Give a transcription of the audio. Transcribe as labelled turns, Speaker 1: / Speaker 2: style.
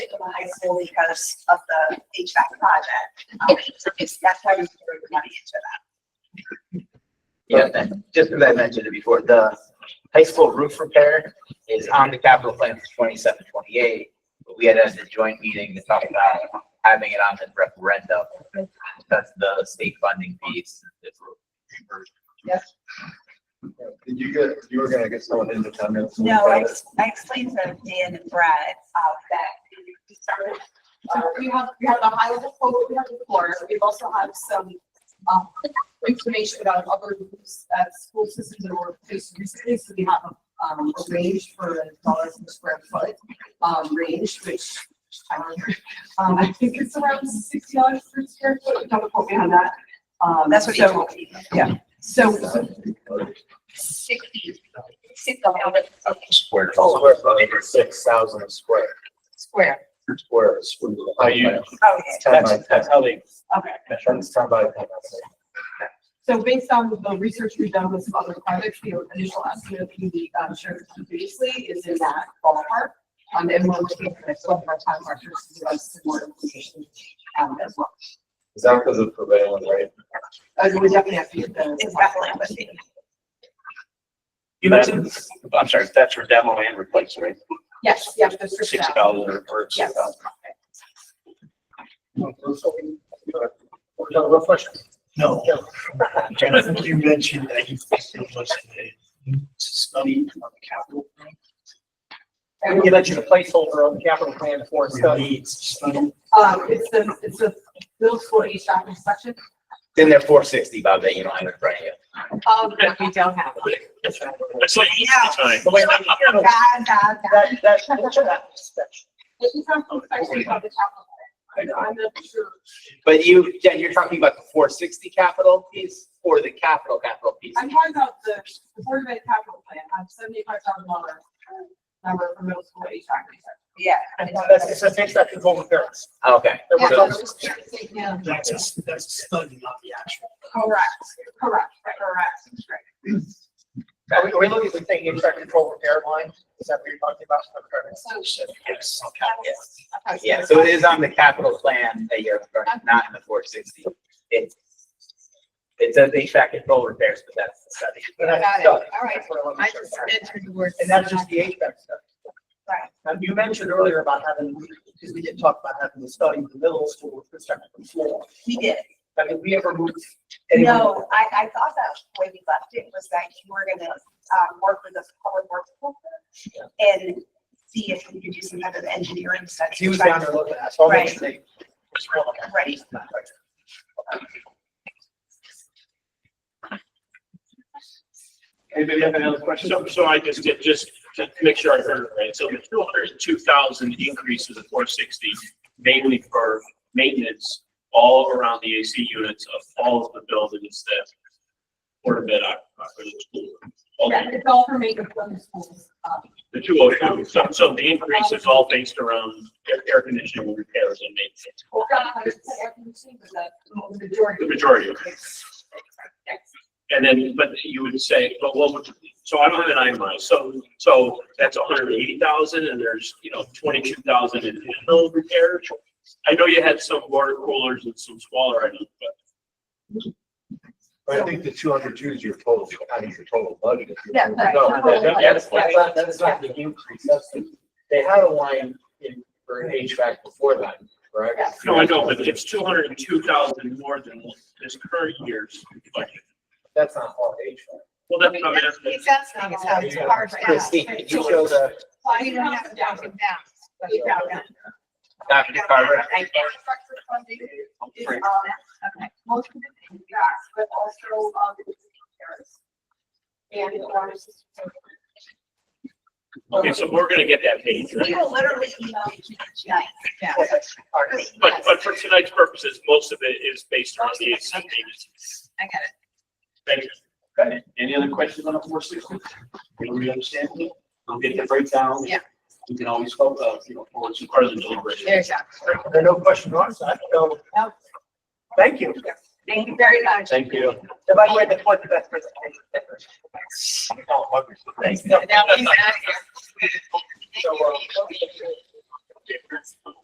Speaker 1: the high school because of the HVAC project. Um, so it's- That's why we threw the money into that.
Speaker 2: Yeah, and just as I mentioned it before, the high school roof repair is on the capital plan for twenty-seven, twenty-eight. But we had as a joint meeting to talk about having it on the referendum. That's the state funding piece.
Speaker 1: Yes.
Speaker 3: Did you get, you were gonna get someone independent?
Speaker 1: No, I, ex- I explained to Dan and Brad, uh, that we started, uh, we have, we have a high level quote, we have the floor, we also have some, um, information about other groups at school systems that were placed recently, so we have, um, a range for dollars per square foot, um, range, which, um, um, I think it's around sixty dollars per square foot, don't quote me on that. Um,
Speaker 4: That's what he
Speaker 1: so-
Speaker 4: told me.
Speaker 1: Yeah, so
Speaker 4: Sixty, six thousand
Speaker 3: Square.
Speaker 4: Oh.
Speaker 3: Square foot, it's six thousand square,
Speaker 4: square.
Speaker 3: square. square.
Speaker 5: Are you-
Speaker 1: Okay,
Speaker 3: Ten by
Speaker 5: That's,
Speaker 3: ten.
Speaker 5: that's how they,
Speaker 1: okay.
Speaker 3: That's ten by ten.
Speaker 1: So based on the research we've done with some other projects, the initial estimate we um, shared previously is in that ballpark. Um, and we're looking at some of our time markers to give us some more information um, as well.
Speaker 3: Is that because of prevailing rate?
Speaker 1: Uh, we definitely have to get the.
Speaker 4: It's definitely with me.
Speaker 5: you mentioned, I'm sorry, that's for demo and replace, right?
Speaker 1: Yes, yeah, the
Speaker 5: For
Speaker 1: first
Speaker 5: six
Speaker 1: step.
Speaker 5: dollars or
Speaker 1: Yes.
Speaker 5: six dollars.
Speaker 6: No. Jonathan, you mentioned that you think it was a study on the capital. plan.
Speaker 1: Um,
Speaker 7: You mentioned a placeholder on the capital plan for a
Speaker 6: We
Speaker 7: study.
Speaker 6: need study.
Speaker 1: Um, it's the, it's the middle school HVAC inspection.
Speaker 2: Then they're four sixty, Bob, that you don't have in front of you.
Speaker 1: Um, that we don't have.
Speaker 5: That's like, that's fine.
Speaker 7: But wait, wait, no, no,
Speaker 1: Bad, bad, bad.
Speaker 7: That, that's, that's that inspection.
Speaker 1: This is not from section of the capital. plan. I'm not sure.
Speaker 2: But you, Jen, you're talking about the four sixty capital piece or the capital capital piece?
Speaker 1: I'm talking about the, the Board of Ed capital plan, I have seventy-five thousand dollar um, number for middle school HVAC.
Speaker 4: Yeah.
Speaker 7: That's, it's an inspection home repairs.
Speaker 2: Okay. So-
Speaker 1: Yeah,
Speaker 6: That's a, s- that's a study, not the actual.
Speaker 1: correct, correct, correct, correct.
Speaker 7: Are we, are we looking at the thing, inspection home repair line? Is that what you're talking about? Okay.
Speaker 2: Yes. Yeah, so it is on the capital plan that you're, not in the four sixty. It's, it says HVAC control repairs, but that's the study.
Speaker 7: But that's
Speaker 4: Got it.
Speaker 7: study.
Speaker 4: All right.
Speaker 7: That's what I wanted to
Speaker 4: I
Speaker 7: show
Speaker 4: just
Speaker 7: you.
Speaker 4: entered the word.
Speaker 7: And that's just the HVAC stuff.
Speaker 4: Right.
Speaker 7: Now, you mentioned earlier about having, because we didn't talk about having the study in the middle school with respect to the floor.
Speaker 1: He did.
Speaker 7: I mean, we ever moved anyone?
Speaker 4: No, I, I thought that when we left it was that you were gonna, um, work with the public works people and see if we could do some kind of engineering study.
Speaker 7: He was down there looking at, it, so I'll make sure they.
Speaker 4: Right.
Speaker 5: Anybody have any other questions? So, so I just did, just to make sure I heard it right. So the two hundred and two thousand increase to the four sixty, mainly for maintenance all around the AC units of all of the buildings that were bid out for the school. All
Speaker 1: Yeah, it's all for maintenance on the schools. Um,
Speaker 5: The two oh two, so, so the increase is all based around air, air conditioning repairs and maintenance,
Speaker 1: we've got a hundred percent air conditioning, but the majority.
Speaker 5: the majority of it.
Speaker 1: Yes.
Speaker 5: And then, but you would say, but what would, so I don't have an itemized, so, so that's hundred and eighty thousand and there's, you know, twenty-two thousand in handle repair. I know you had some water coolers and some smaller items, but
Speaker 3: I think the two hundred two is your total, I mean, your total budget.
Speaker 1: Yeah, right.
Speaker 3: No, that- Oh, that's, that's not, that's not the increase, that's the, they had a line in, for HVAC before that, correct?
Speaker 1: Yes.
Speaker 5: no, I know, but it's two hundred and two thousand more than this current year's budget.
Speaker 3: That's not all HVAC.
Speaker 5: Well, that's not, that's-
Speaker 4: It's that's not, it's not, it's hard right now.
Speaker 2: Christine, could you show the
Speaker 1: Well,
Speaker 4: We
Speaker 1: you
Speaker 4: don't have to down and down.
Speaker 1: Eight thousand.
Speaker 2: Dr. Carver?
Speaker 1: Infrastructure funding is, um, okay, most of it is gas, but also, um, it's repairs. And it's water system.
Speaker 5: okay, so we're gonna get that page, right?
Speaker 4: We will literally email you tonight.
Speaker 1: Yeah.
Speaker 5: But, but for tonight's purposes, most of it is based on the AC payments.
Speaker 4: I got it.
Speaker 5: Thank you.
Speaker 8: Any other questions on the four sixty? We understand, we'll get the breakdown.
Speaker 4: Yeah.
Speaker 8: We can always, go, uh, you know, forward to
Speaker 5: Part of the deliberation.
Speaker 4: There's that.
Speaker 7: There are no questions on our side, so.
Speaker 4: No.
Speaker 7: Thank you.
Speaker 4: Thank you very much.
Speaker 8: Thank you.
Speaker 7: And by the way, that was the best presentation ever. Thanks.
Speaker 4: Now he's out here.
Speaker 7: So, uh,